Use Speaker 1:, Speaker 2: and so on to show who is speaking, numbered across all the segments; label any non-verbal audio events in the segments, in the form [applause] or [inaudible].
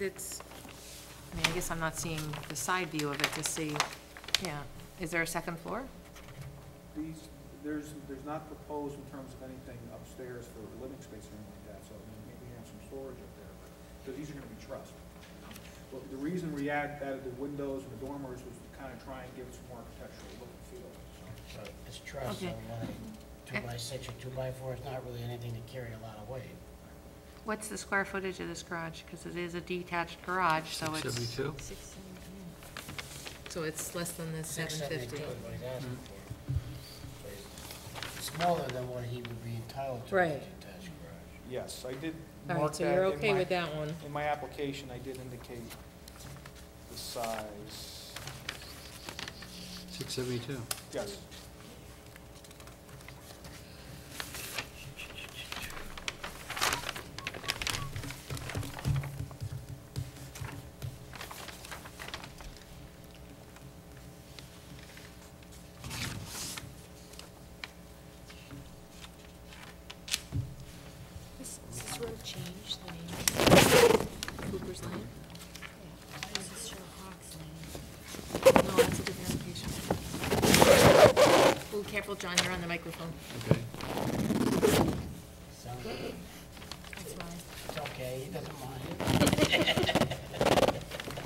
Speaker 1: it's, I mean, I guess I'm not seeing the side view of it to see, yeah. Is there a second floor?
Speaker 2: These, there's, there's not proposed in terms of anything upstairs for living space or anything like that, so I mean, maybe you have some storage up there, but, because these are gonna be trussed. you know. But the reason we add- added the windows and the dormers was to kind of try and give it some more architectural look and feel, so.
Speaker 3: So it's truss, so
Speaker 1: Okay.
Speaker 3: whether two by six or two by four, it's not really anything to carry a lot of weight.
Speaker 1: What's the square footage of this garage? Because it is a detached garage, so it's.
Speaker 4: 72?
Speaker 1: So it's less than the
Speaker 3: Six,
Speaker 1: seven fifty. Mm-hmm.
Speaker 3: two is what he's asking for. So it's Smaller than what he would be entitled to in a
Speaker 1: Right.
Speaker 3: detached garage.
Speaker 2: Yes, I did
Speaker 1: All right, so you're okay with that one?
Speaker 2: In my application, I did indicate the size.
Speaker 4: 672.
Speaker 2: Yes.
Speaker 5: Does this road change the name?
Speaker 1: Cooper's Lane?
Speaker 5: This is Hawks Lane.
Speaker 1: No, that's a different application. Ooh, careful, John, you're on the microphone.
Speaker 4: Okay.
Speaker 3: So
Speaker 5: That's mine.
Speaker 3: it's okay, he doesn't mind.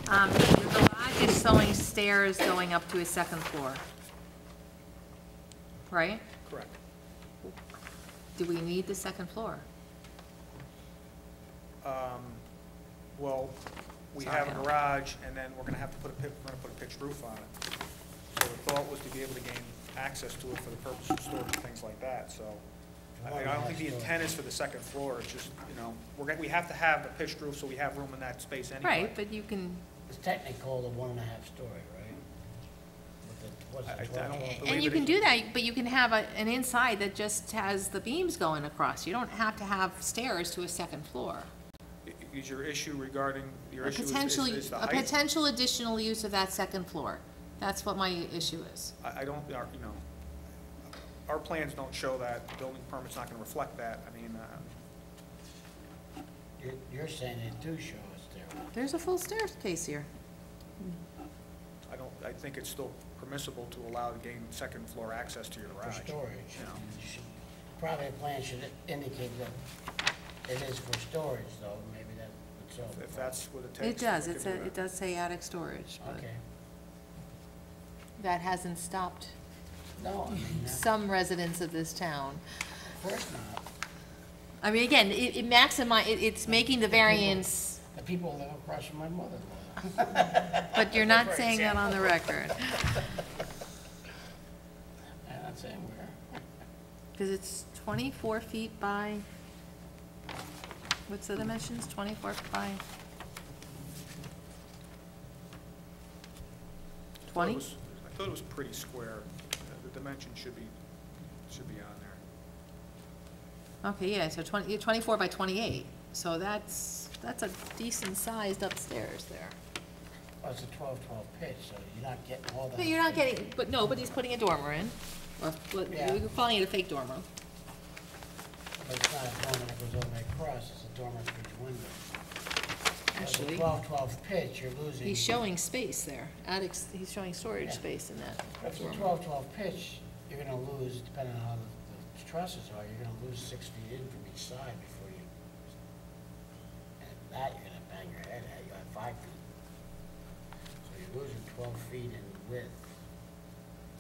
Speaker 1: Um, the garage is showing stairs going up to a second floor. Right?
Speaker 2: Correct.
Speaker 1: Do we need the second floor?
Speaker 2: Um, Well, we have a garage, and then we're gonna have to put a, pi- we're gonna put a pitched roof on it. So the thought was to be able to gain access to it for the purpose of storage and things like that, so. I mean, I don't think the intent is for the second floor, it's just, you know, we're gonna, we have to have a pitched roof, so we have room in that space anyway.
Speaker 1: Right, but you can,
Speaker 3: It's technically called a one and a half story, right? With the- what's
Speaker 2: I- I- I
Speaker 3: the 12
Speaker 2: don't
Speaker 3: inch?
Speaker 2: believe
Speaker 1: and you
Speaker 2: it.
Speaker 1: can do that, but you can have a, an inside that just has the beams going across. You don't have to have stairs to a second floor.
Speaker 2: I- Is your issue regarding, your
Speaker 1: A
Speaker 2: issue is- is,
Speaker 1: potential,
Speaker 2: is the
Speaker 1: a
Speaker 2: height?
Speaker 1: potential additional use of that second floor. That's what my issue is.
Speaker 2: I, I don't, our- you know, our plans don't show that, The building permit's not gonna reflect that, I mean, uh,
Speaker 3: You're, you're saying they do show us there.
Speaker 1: There's a full staircase here.
Speaker 2: I don't, I think it's still permissible to allow to gain second floor access to your
Speaker 3: For
Speaker 2: garage.
Speaker 3: storage,
Speaker 2: you know.
Speaker 3: you should- probably a plan should indicate that it is for storage, though, maybe that would solve the
Speaker 2: If
Speaker 3: problem.
Speaker 2: that's what it
Speaker 1: It
Speaker 2: takes. we
Speaker 1: does,
Speaker 2: could
Speaker 1: it's
Speaker 2: do
Speaker 1: a,
Speaker 2: that.
Speaker 1: it does say attic storage, but
Speaker 3: Okay,
Speaker 1: that hasn't stopped
Speaker 3: no,
Speaker 1: [laughs]
Speaker 3: I mean, uh,
Speaker 1: some residents of this town.
Speaker 3: of course not.
Speaker 1: I mean, again, it, it maximi, it, it's making the variance,
Speaker 3: The people live across from my mother-in-law.
Speaker 1: but you're not saying that on the record.
Speaker 3: I'm not saying where.
Speaker 1: Cause it's twenty-four feet by, what's the dimensions, twenty-four by?
Speaker 2: I thought it
Speaker 1: Twenty?
Speaker 2: was- I thought it was pretty square. The- The dimension should be, should be on there.
Speaker 1: Okay, yeah, so 20 yeah, 24 by twenty-eight, so that's, that's a decent sized upstairs there.
Speaker 3: Well, it's a 12-12 pitch, so you're not getting all that.
Speaker 1: But you're not getting, but nobody's putting a dormer in, or, what-
Speaker 3: Yeah.
Speaker 1: we're calling it a fake dormer.
Speaker 3: But it's not a dormer that goes all the way across, it's a dormer for each window.
Speaker 1: Actually.
Speaker 3: With a 12-12 pitch, you're losing.
Speaker 1: He's showing space there, attic, he's showing storage
Speaker 3: Yeah.
Speaker 1: space in that.
Speaker 3: If it's a
Speaker 1: dormer.
Speaker 3: 12-12 pitch, you're gonna lose, depending on how the- the trusses are, you're gonna lose six feet in from each side before you, and that, you're gonna bang your head at, you have five feet. So you're losing 12 feet in width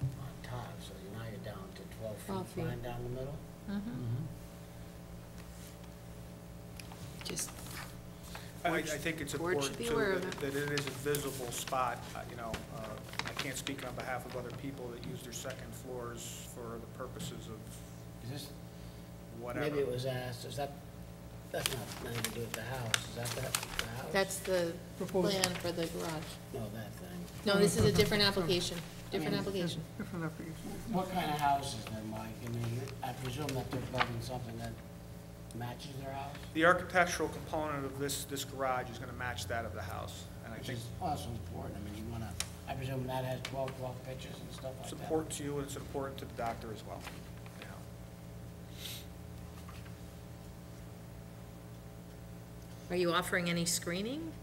Speaker 3: on top, so you- now you're down to 12
Speaker 1: 12
Speaker 3: feet
Speaker 1: feet.
Speaker 3: flying down the middle.
Speaker 1: Mm-hmm. Just,
Speaker 2: I, I think it's
Speaker 1: Board
Speaker 2: important
Speaker 1: should be
Speaker 2: too,
Speaker 1: aware of
Speaker 2: that that it is a visible spot, uh, you know. uh, I can't speak on behalf of other people that use their second floors for the purposes of
Speaker 3: Is this?
Speaker 2: whatever.
Speaker 3: Maybe it was asked, is that, that's not, nothing to do with the house, is that that, the house?
Speaker 1: that's the plan for the garage.
Speaker 3: No, that thing.
Speaker 1: No, this is a different application, different
Speaker 3: different
Speaker 1: application.
Speaker 3: What kind of house is there, Mike? I mean, you- I presume that they're building something that matches their house?
Speaker 2: The architectural component of this, this garage is gonna match that of the house. And I
Speaker 3: Which
Speaker 2: think
Speaker 3: is also important, I mean, you wanna, I presume that has twelve block pitches and stuff like
Speaker 2: it's
Speaker 3: that?
Speaker 2: important to you and it's important to the doctor as well, you know.
Speaker 1: Are you offering any screening?